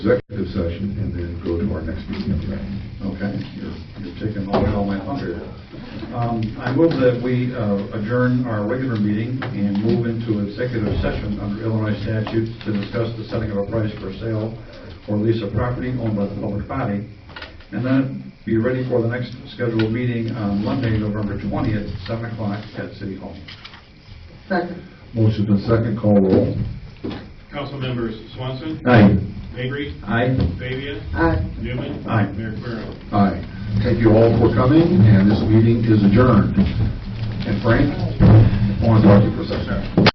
executive session and then go to our next meeting. Okay, you're, you're taking away all my thunder. Um, I move that we uh, adjourn our regular meeting and move into executive session under Illinois statutes to discuss the setting of a price for sale or lease of property owned by the public body, and then be ready for the next scheduled meeting on Monday, November 20th, 7 o'clock at City Hall. Second. Motion's been second, call roll. Council members Swanson, Aye. Mavry, Aye. Fabia, Aye. Newman. Aye. Mayor Querem. Aye. Thank you all for coming, and this meeting is adjourned. And Frank, I want to talk to you for a second.